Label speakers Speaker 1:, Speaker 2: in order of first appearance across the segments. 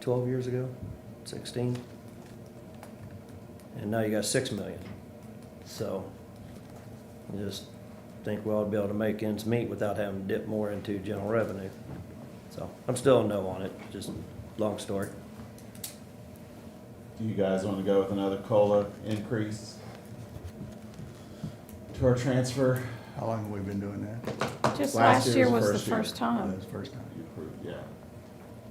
Speaker 1: twelve years ago, sixteen. And now you got six million. So I just think we'll be able to make ends meet without having to dip more into general revenue. So I'm still a no on it, just long story.
Speaker 2: Do you guys want to go with another COLA increase to our transfer?
Speaker 3: How long have we been doing that?
Speaker 4: Just
Speaker 2: Last
Speaker 4: last
Speaker 2: year
Speaker 4: year
Speaker 2: was
Speaker 4: was the
Speaker 2: first year.
Speaker 4: first
Speaker 3: Oh,
Speaker 4: time.
Speaker 3: That's the first time.
Speaker 2: You approved, Yeah.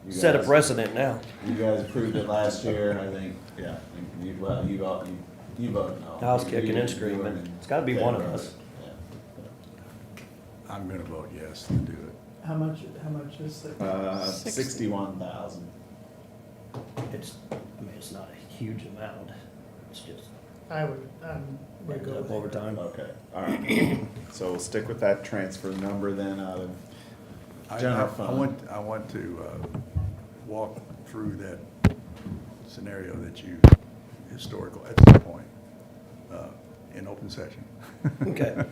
Speaker 2: You
Speaker 1: Set a
Speaker 2: guys-
Speaker 1: precedent now.
Speaker 2: You guys approved it last year, I think, yeah, I think you, well, you vote, you, you voted no.
Speaker 1: I was
Speaker 2: You-
Speaker 1: kicking
Speaker 2: you-
Speaker 1: and
Speaker 2: you
Speaker 1: screaming.
Speaker 2: were in
Speaker 1: It's gotta be one of
Speaker 2: favor
Speaker 1: us.
Speaker 2: it.
Speaker 3: I'm gonna vote yes to do it.
Speaker 5: How much, how much is that?
Speaker 2: Yeah. Uh,
Speaker 4: Sixty.
Speaker 2: sixty-one thousand,
Speaker 1: It's, I mean, it's not a huge amount. It's just
Speaker 5: I would, um, would
Speaker 1: ends
Speaker 5: go
Speaker 1: up
Speaker 5: with
Speaker 1: over
Speaker 5: it.
Speaker 1: time.
Speaker 2: okay, all right. So we'll stick with that transfer number then out of
Speaker 3: I- I-
Speaker 2: general
Speaker 3: I
Speaker 2: fund.
Speaker 3: want, I want to, uh, walk through that scenario that you, historical, at some point, uh, in open session.
Speaker 1: Okay.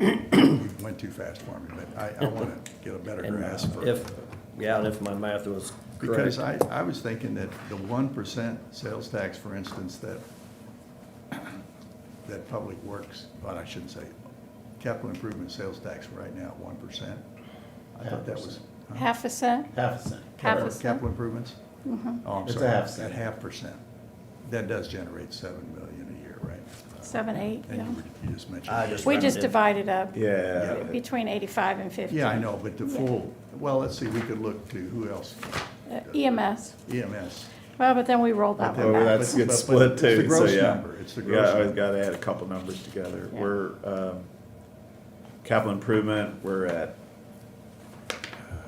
Speaker 3: You Went too fast for me, but I, I wanna get a better
Speaker 1: And
Speaker 3: grasp for.
Speaker 1: If, yeah, and if my math was correct.
Speaker 3: Because I, I was thinking that the one percent sales tax, for instance, that, that Public Works, well, I shouldn't say, capital improvement sales tax right now, one percent. I thought that was. huh?
Speaker 4: Half a cent?
Speaker 2: Half a cent.
Speaker 4: Half a
Speaker 3: Uh-huh. Or
Speaker 4: cent.
Speaker 3: Capital improvements?
Speaker 4: Mm-hmm.
Speaker 3: Oh, I'm
Speaker 2: It's a
Speaker 3: sorry,
Speaker 2: half cent.
Speaker 3: At half percent. That does generate seven million a year, right?
Speaker 4: Seven, eight,
Speaker 3: And
Speaker 4: yeah.
Speaker 3: you were- you just mentioned.
Speaker 1: I just
Speaker 4: We just
Speaker 1: rounded.
Speaker 4: divided up
Speaker 2: Yeah.
Speaker 4: between eighty-five and fifty.
Speaker 3: Yeah, I know, but the
Speaker 4: Yeah.
Speaker 3: full, well, let's see, we could look to, who else? E
Speaker 4: Uh, EMS.
Speaker 3: EMS.
Speaker 4: Well, but then we rolled that
Speaker 3: But
Speaker 4: one
Speaker 3: then-
Speaker 2: Well,
Speaker 4: back.
Speaker 2: that's a
Speaker 3: But-
Speaker 2: good
Speaker 3: but
Speaker 2: split
Speaker 3: it's the
Speaker 2: too, so
Speaker 3: gross
Speaker 2: yeah.
Speaker 3: number, it's the
Speaker 2: We
Speaker 3: gross
Speaker 2: got- always
Speaker 3: number.
Speaker 2: gotta add a couple numbers together.
Speaker 4: Yeah.
Speaker 2: We're, um, capital improvement, we're at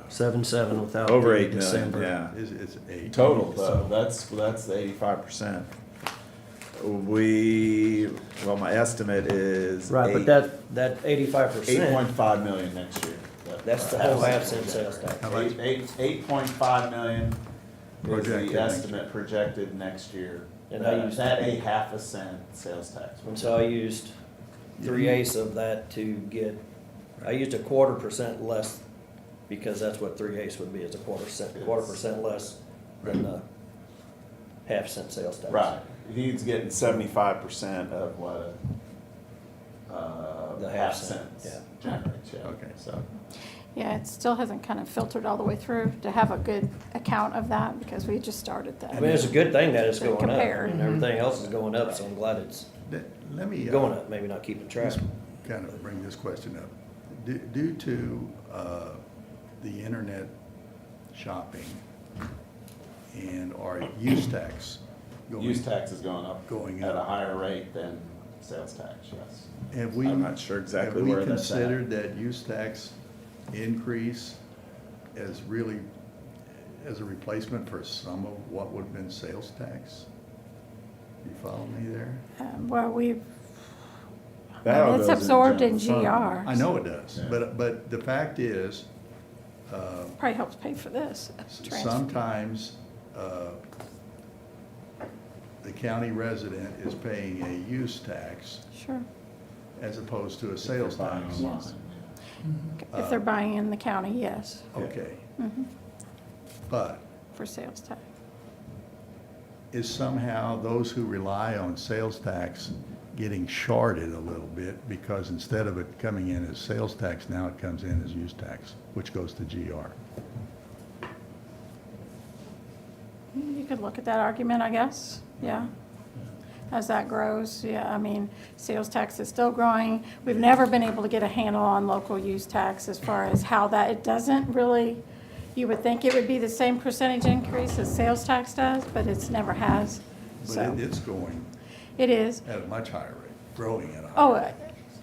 Speaker 1: Seven, seven without.
Speaker 2: over
Speaker 1: the
Speaker 2: eight million,
Speaker 1: December.
Speaker 2: yeah.
Speaker 3: Is, is eight.
Speaker 2: Total
Speaker 3: So-
Speaker 2: though, that's, that's eighty-five percent. We, well, my estimate is
Speaker 1: Right, but that, that eighty-five
Speaker 2: Eight point
Speaker 1: percent,
Speaker 2: five million next year. That-
Speaker 1: that's the whole half cent sales tax.
Speaker 3: How about-
Speaker 2: Eight, eight, eight point five million is
Speaker 3: Projected next
Speaker 2: the
Speaker 3: year.
Speaker 2: estimate projected next year.
Speaker 1: And I
Speaker 2: That-
Speaker 1: used-
Speaker 2: That a half a cent sales tax.
Speaker 1: And so I used three eighths of that to get, I used a quarter percent less, because that's what three eighths would be, is a quarter cent, quarter percent less than the half cent sales tax.
Speaker 2: Right, he's getting seventy-five percent of what a, uh,
Speaker 1: The
Speaker 2: half
Speaker 1: half
Speaker 2: cent
Speaker 1: cent,
Speaker 2: generates, yeah.
Speaker 3: Okay.
Speaker 2: So,
Speaker 4: Yeah, it still hasn't kind of filtered all the way through to have a good account of that because we just started
Speaker 1: I mean,
Speaker 4: that.
Speaker 1: it's a good thing that it's going up,
Speaker 4: Compare.
Speaker 1: and everything else is going up, so I'm glad it's
Speaker 3: Let let me. uh,
Speaker 1: going up, maybe not keeping track.
Speaker 3: Just kind of bring this question up. Du- Due to uh, the internet shopping and our use tax
Speaker 2: use
Speaker 3: going,
Speaker 2: tax is going up.
Speaker 3: Going
Speaker 2: At a
Speaker 3: up.
Speaker 2: higher rate than sales tax, yes.
Speaker 3: have we?
Speaker 2: I'm not sure exactly where
Speaker 3: Have we
Speaker 2: that's at.
Speaker 3: considered that use tax increase as really, as a replacement for some of what would have been sales tax? You follow me there?
Speaker 4: Um, Well, we've,
Speaker 2: That all
Speaker 4: it's
Speaker 2: goes in
Speaker 4: absorbed in
Speaker 2: general fund.
Speaker 4: GR.
Speaker 3: I know it does,
Speaker 2: Yeah.
Speaker 3: but, but the fact is, uh,
Speaker 4: Probably helps pay for this
Speaker 3: S-
Speaker 4: transfer.
Speaker 3: Sometimes, uh, the county resident is paying a use tax
Speaker 4: Sure.
Speaker 3: as opposed to a sales tax.
Speaker 4: online. If they're
Speaker 3: Uh,
Speaker 4: buying in the county, yes,
Speaker 3: Okay,
Speaker 4: Mhm,
Speaker 3: but
Speaker 4: for sales tax.
Speaker 3: is somehow those who rely on sales tax getting shorted a little bit because instead of it coming in as sales tax, now it comes in as use tax, which goes to GR.
Speaker 4: You could look at that argument, I guess, yeah. As that grows, yeah, I mean, sales tax is still growing. We've never been able to get a handle on local use tax as far as how that, it doesn't really, you would think it would be the same percentage increase as sales tax does, but it's never has.
Speaker 3: But
Speaker 4: So,
Speaker 3: it- it's going
Speaker 4: it is.
Speaker 3: at a much higher rate, growing at a higher.
Speaker 4: Oh, uh,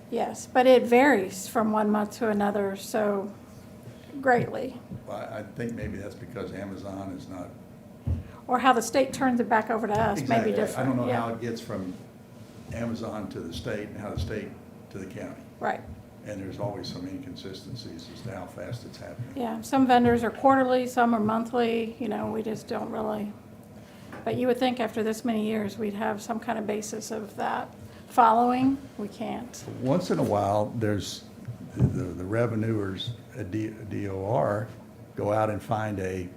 Speaker 4: yes, but it varies from one month to another, so greatly.
Speaker 3: Well, I I think maybe that's because Amazon is not
Speaker 4: Or how the state turns it back over to us may be
Speaker 3: Exactly.
Speaker 4: different.
Speaker 3: I don't know
Speaker 4: yeah.
Speaker 3: how it gets from Amazon to the state and how the state to the county.
Speaker 4: Right.
Speaker 3: And there's always some inconsistencies as to how fast it's happening.
Speaker 4: Yeah, some vendors are quarterly, some are monthly, you know, we just don't really. But you would think after this many years, we'd have some kind of basis of that following. We can't.
Speaker 3: Once in a while, there's, the, the revenuers, a D- DOR, go out and find a